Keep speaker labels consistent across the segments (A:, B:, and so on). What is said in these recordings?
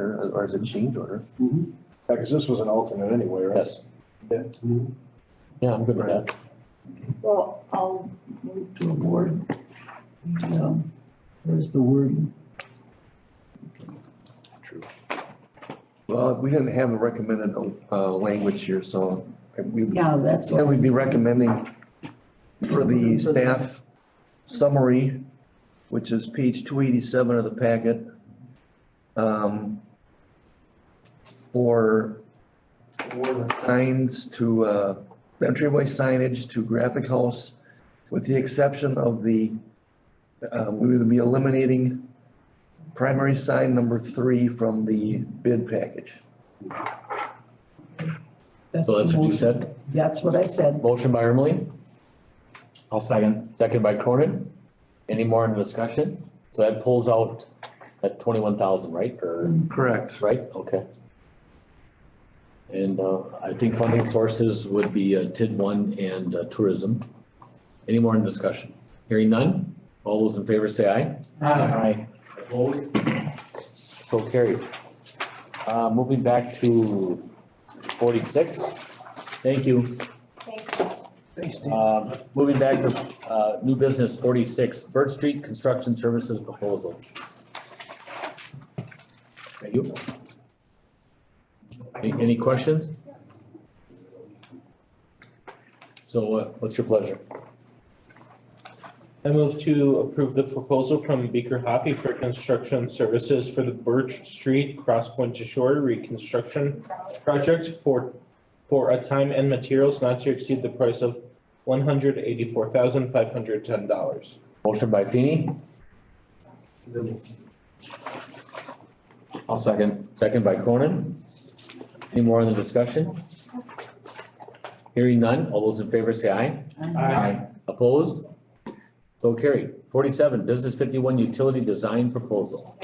A: order or as a change order.
B: because this was an alternate anyway, right?
A: Yes.
B: Yeah.
A: Yeah, I'm good with that.
C: Well, I'll move to award. Yeah, where's the wording?
A: Well, we didn't have a recommended, uh, language here, so we,
C: Yeah, that's
A: then
C: what.
A: we'd be recommending for the staff summary, which is page two eighty-seven of the packet. Um, for signs to, uh, entryway signage to graphic house, with the exception of the, uh, we would be eliminating primary sign number three from the bid package.
D: So that's
C: the
D: what you
C: motion.
D: said?
C: That's what I said.
D: Motion by Ermeling,
E: I'll second.
D: second by Cronin. Any more in discussion? So that pulls out that twenty-one thousand, right? Or,
A: Correct.
D: right? Okay. And, uh, I think funding sources would be uh, TID one and uh, tourism. Any more in discussion? Hearing none? All those in favor say aye.
E: Aye.
D: Opposed? So carried. Uh, moving back to forty-six. Thank you.
F: Thank you.
A: Thanks, Steve.
D: Um, moving back to, uh, new business forty-six, Bird Street Construction Services Proposal. Thank you. Any, any questions? So, uh, what's your pleasure?
G: I move to approve the proposal from Beaker Hoppy for construction services for the Birch Street Cross Point to Shore reconstruction project for, for a time and materials not to exceed the price of one hundred eighty-four thousand five hundred ten dollars.
D: Motion by Feeny,
E: I'll second.
D: second by Cronin. Any more on the discussion? Hearing none, all those in favor say aye.
E: Aye.
D: Opposed? So carried. Forty-seven, Business fifty-one Utility Design Proposal.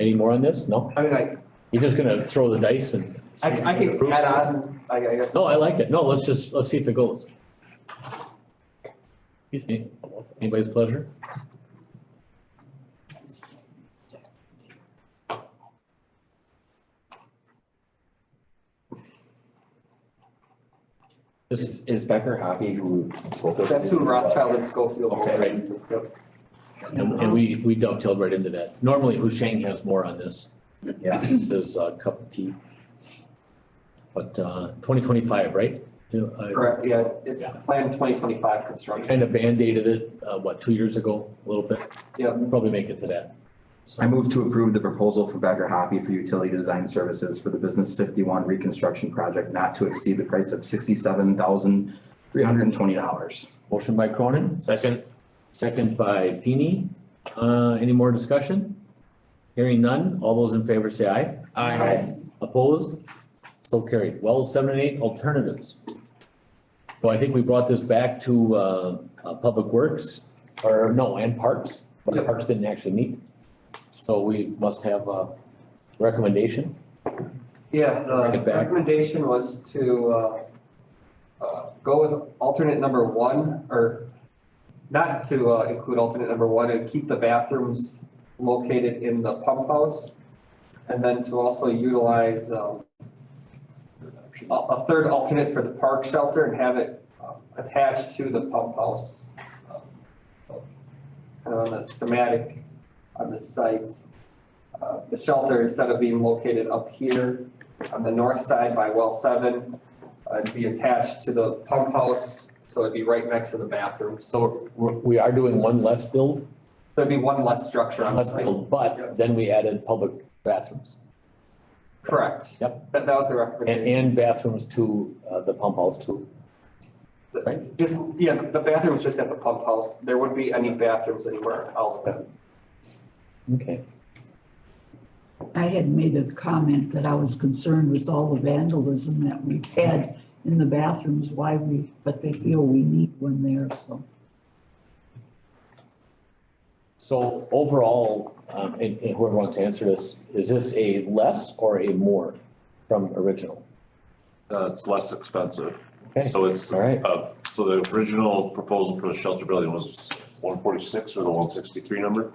D: Any more on this? No?
H: I mean, I,
D: You're just gonna throw the dice and.
H: I, I can add on, I I guess.
D: No, I like it. No, let's just, let's see if it goes. Excuse me. Anybody's pleasure? This,
E: Is, is Becker happy who spoke of?
H: That's who Rothschild and Schofield. were.
E: Okay.
D: Right.
H: Yep.
D: and and we, we dovetailed right into that. Normally, Husheng has more on this.
E: Yeah.
D: This is a cup of tea. But, uh, twenty twenty-five, right? uh, Yeah, I-
H: Correct, yeah, it's
D: Yeah.
H: planned twenty twenty-five
D: I
H: construction.
D: kind of band-aided it, uh, what, two years ago, a little bit?
H: Yeah.
D: Probably make it to that.
E: I move to approve the proposal for Becker Hoppy for utility design services for the Business fifty-one reconstruction project not to exceed the price of sixty-seven thousand three hundred and twenty dollars.
D: Motion by Cronin,
G: Second.
D: second by Feeny. Uh, any more discussion? Hearing none, all those in favor say aye. Opposed? So carried. Well, seven and eight alternatives. So I think we brought this back to, uh, uh, Public Works, or no, and Parks, but Parks didn't actually meet. So we must have a recommendation.
H: Yeah,
D: Bring
H: the
D: it back.
H: recommendation was to, uh, uh, go with alternate number one, or not to, uh, include alternate number one and keep the bathrooms located in the pump house. And then to also utilize, um, a, a third alternate for the park shelter and have it uh, attached to the pump house. um, Kind of on the schematic on the site. Uh, the shelter, instead of being located up here on the north side by well seven, uh, it'd be attached to the pump house, so it'd be right next to the bathroom. So
D: So we're- we are doing one less build
H: there'd be one less structure on the
D: Unless,
H: site.
D: but then we added public bathrooms
H: Correct.
D: Yep.
H: That, that was the
D: and,
H: recommendation.
D: and bathrooms to uh, the pump house too. right.
H: Just, yeah, the bathroom's just at the pump house. There wouldn't be any bathrooms anywhere else then.
D: Okay.
C: I had made a comment that I was concerned with all the vandalism that we've had in the bathrooms, why we, but they feel we need one there, so.
D: So overall, um, and, and whoever wants to answer this, is this a less or a more from original?
I: Uh, it's less expensive.
D: Okay.
I: So it's,
D: All right.
I: uh, so the original proposal for the shelter building was one forty-six or the one sixty-three number?